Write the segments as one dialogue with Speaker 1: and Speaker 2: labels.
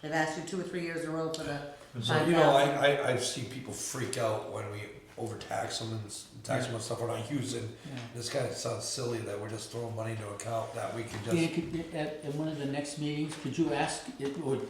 Speaker 1: They've asked you two or three years in a row for the
Speaker 2: And so,
Speaker 1: five
Speaker 2: you know, I,
Speaker 1: thousand.
Speaker 2: I, I see people freak out when we overtax them and s- tax them on stuff we're not using. This kind of sounds silly that we're just throwing money into account that we can
Speaker 3: Dan,
Speaker 2: just,
Speaker 3: could, at, at one of the next meetings, could you ask, it would,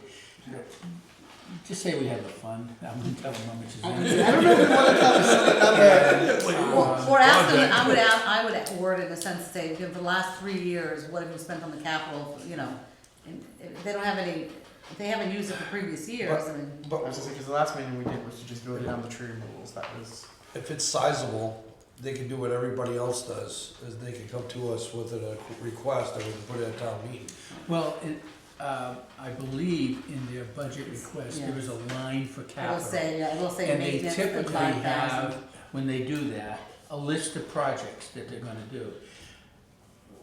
Speaker 3: just say we have a fund, I'm gonna tell them how much is in Uh, it.
Speaker 4: I don't know if we want to tell them something number.
Speaker 1: Or, or ask them, I would ask, I would word it in a sense, say, you know, for the last three years, what have you spent on the capital, you know? And if they don't have any, if they haven't used it for previous years, I mean,
Speaker 4: I
Speaker 2: but
Speaker 4: was just because the last meeting we did was to just go down the tree removals. That was
Speaker 2: if it's sizable, they can do what everybody else does, is they can come to us with a request and we can put it at town meeting.
Speaker 3: Well, it, uh, I believe in their budget request, there is a line for
Speaker 1: it'll
Speaker 3: capital.
Speaker 1: say, yeah, it'll say
Speaker 3: And they
Speaker 1: maintenance for
Speaker 3: typically
Speaker 1: five thousand.
Speaker 3: have, when they do that, a list of projects that they're gonna do.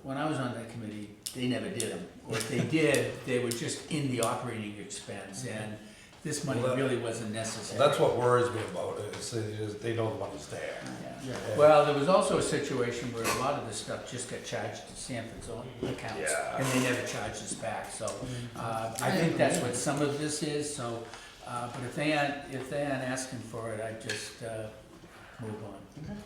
Speaker 3: When I was on that committee, they never did them, or if they did, they were just in the operating expense, and this money
Speaker 2: Well, that-
Speaker 3: really wasn't necessary.
Speaker 2: That's what worries me about it, is they, just- they know the money's there.
Speaker 3: Yeah. Well, there was also a situation where a lot of this stuff just got charged to Sanford's own accounts,
Speaker 2: Yeah.
Speaker 3: and they never charged us back, so, uh, I think that's what some of this is, so, uh, but if they aren't, if they aren't asking for it, I'd just, uh, move on.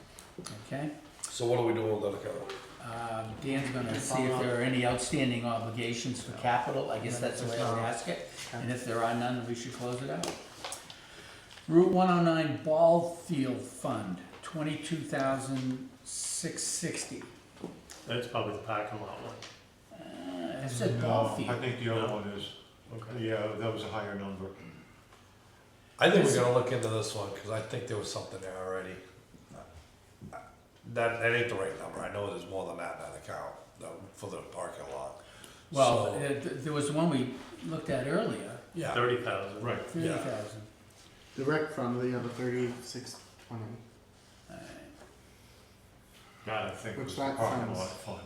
Speaker 3: Okay,
Speaker 2: So what are we doing with that account?
Speaker 3: um, Dan's gonna see
Speaker 4: Follow
Speaker 3: if
Speaker 4: up.
Speaker 3: there are any outstanding obligations for capital, I guess that's the way I'll ask it, and if there are none, we should close it out. Route one oh nine Ball Field Fund, twenty-two thousand six sixty.
Speaker 5: That's probably the parking lot one.
Speaker 3: Uh, It said ball
Speaker 6: No, I
Speaker 3: field.
Speaker 6: think the other one is,
Speaker 5: Okay.
Speaker 6: yeah, that was a higher number.
Speaker 2: I think we're gonna look into this one, cause I think there was something there already. That, that ain't the right number, I know there's more than that in that account, that- for the parking lot.
Speaker 3: Well,
Speaker 2: So,
Speaker 3: uh, th- there was one we looked at earlier,
Speaker 2: Yeah,
Speaker 5: Thirty thousand.
Speaker 6: Right.
Speaker 3: thirty thousand.
Speaker 4: the rec fund. The other thirty-six twenty.
Speaker 6: That I think
Speaker 4: Which
Speaker 6: was the
Speaker 4: that
Speaker 6: parking
Speaker 4: sounds-
Speaker 6: lot fund.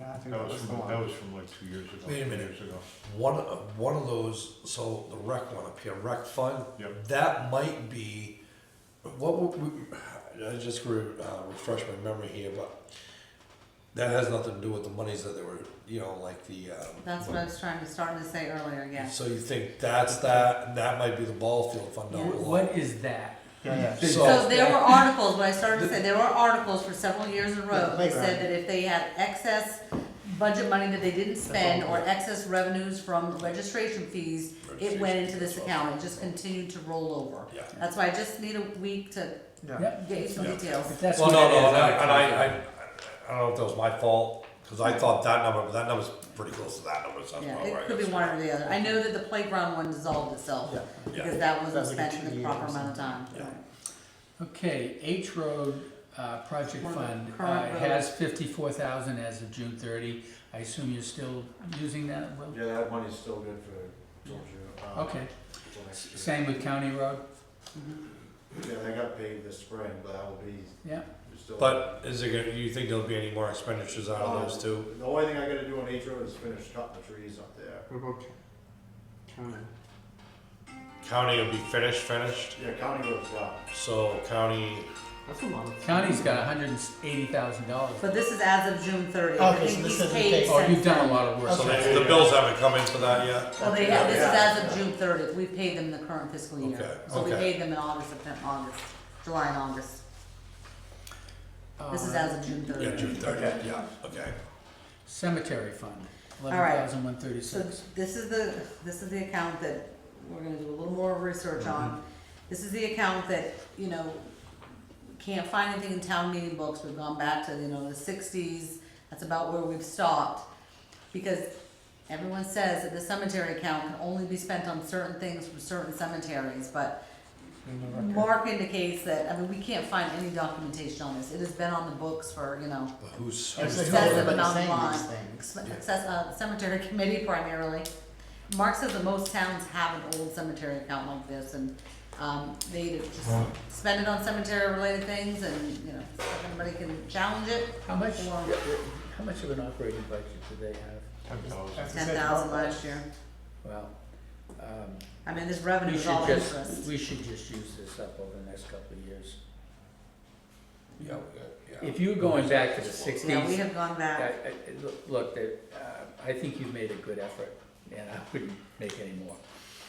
Speaker 4: Yeah, I think
Speaker 6: That was
Speaker 4: the
Speaker 6: from,
Speaker 4: one.
Speaker 6: that was from like two years ago, three
Speaker 2: Wait a minute.
Speaker 6: years ago.
Speaker 2: one, of- one of those, so the rec one up here, rec fund,
Speaker 6: Yep.
Speaker 2: that might be, what, would we- I just re- uh, refresh my memory here, but that has nothing to do with the monies that they were, you know, like the, um,
Speaker 1: That's what I was trying to, starting to say earlier, yeah.
Speaker 2: so you think that's that, and that might be the ball field fund down the line.
Speaker 3: What is that?
Speaker 4: Yeah, yeah.
Speaker 2: So-
Speaker 1: So there were articles, what I started to say, there were articles for several years in a row that said that if they had excess budget money that they didn't spend or excess revenues from registration fees, it went into this account, it just continued to roll over.
Speaker 2: Yeah.
Speaker 1: That's why I just need a week to
Speaker 4: Yeah.
Speaker 3: Yep.
Speaker 1: get you some
Speaker 2: Yeah.
Speaker 1: details.
Speaker 3: If that's
Speaker 2: Well,
Speaker 3: what
Speaker 2: no,
Speaker 3: it is,
Speaker 2: no, and I,
Speaker 3: I'll
Speaker 2: and I,
Speaker 3: close it.
Speaker 2: I- I don't know if that was my fault, cause I thought that number, but that number's pretty close to that number, so that's
Speaker 1: Yeah,
Speaker 2: probably where I
Speaker 1: it could be
Speaker 2: got
Speaker 1: one or the other. I know that the playground one dissolved itself,
Speaker 4: Yeah.
Speaker 2: Yeah.
Speaker 1: because that wasn't
Speaker 4: That's like a
Speaker 1: spent in the
Speaker 4: two-year or
Speaker 1: proper amount of time.
Speaker 2: Yeah.
Speaker 3: Okay, H Road, uh, project
Speaker 1: Or the
Speaker 3: fund, uh,
Speaker 1: current road.
Speaker 3: has fifty-four thousand as of June thirty. I assume you're still using that, Will?
Speaker 7: Yeah, that money's still good for
Speaker 6: Uh,
Speaker 7: Georgia.
Speaker 3: Okay, same with County Road,
Speaker 7: Yeah, they got paid this spring, but that will be
Speaker 3: yeah?
Speaker 7: still.
Speaker 2: But is there gonna, you think there'll be any more expenditures out of those two?
Speaker 7: The only thing I gotta do on H Road is finish cutting the trees up there.
Speaker 4: What about county?
Speaker 2: County will be finished, finished,
Speaker 7: Yeah, county road's done.
Speaker 2: so county,
Speaker 4: That's a lot. Of
Speaker 3: County's got hundred and eighty thousand dollars.
Speaker 1: But this is as of June thirtieth.
Speaker 4: Okay, so this doesn't take-
Speaker 3: Oh, you've done a lot of work.
Speaker 2: so
Speaker 4: Okay.
Speaker 2: the the bills haven't come in for that yet?
Speaker 1: Well, they have, this is
Speaker 7: Yeah.
Speaker 1: as of June thirtieth, we paid them the current fiscal year,
Speaker 2: Okay,
Speaker 1: so we
Speaker 2: okay.
Speaker 1: paid them in August, September, August, July and August, this is
Speaker 3: Uh,
Speaker 1: as of June
Speaker 2: Yeah, June
Speaker 1: thirtieth.
Speaker 2: thirtieth, yeah, okay.
Speaker 3: Cemetery fund, eleven
Speaker 1: right.
Speaker 3: thousand one
Speaker 1: So
Speaker 3: thirty-six.
Speaker 1: this is the, this is the account that we're gonna do a little more research on, this is the account that, you know, can't find anything in town meeting books, we've gone back to, you know, the sixties, that's about where we've stopped. Because everyone says that the cemetery account can only be spent on certain things from certain cemeteries, but Mark indicates that, I mean, we can't find any documentation on this, it has been on the books for, you know,
Speaker 2: But who's,
Speaker 4: That's
Speaker 2: who's
Speaker 4: like
Speaker 1: says
Speaker 4: who
Speaker 1: it,
Speaker 4: everybody's
Speaker 1: but not
Speaker 4: saying
Speaker 1: mine.
Speaker 4: these things.
Speaker 1: ex- access- uh, cemetery committee primarily. Mark says that most towns have an old cemetery account like this, and, um, they either just spend it on cemetery-related things, and, you know, everybody can challenge it,
Speaker 3: How much,
Speaker 1: or
Speaker 3: how much of an operating budget do they have?
Speaker 6: Ten thousand.
Speaker 4: That's-
Speaker 1: ten thousand last year.
Speaker 3: Well, um,
Speaker 1: I mean, this
Speaker 3: we
Speaker 1: revenue is all
Speaker 3: should
Speaker 1: interest.
Speaker 3: just, we should just use this up over the next couple of years.
Speaker 2: yeah, we got- yeah.
Speaker 3: If you're going back to the sixties,
Speaker 1: Yeah, we have gone
Speaker 3: I,
Speaker 1: back,
Speaker 3: I, look, that, uh, I think you've made a good effort. and I wouldn't make any more.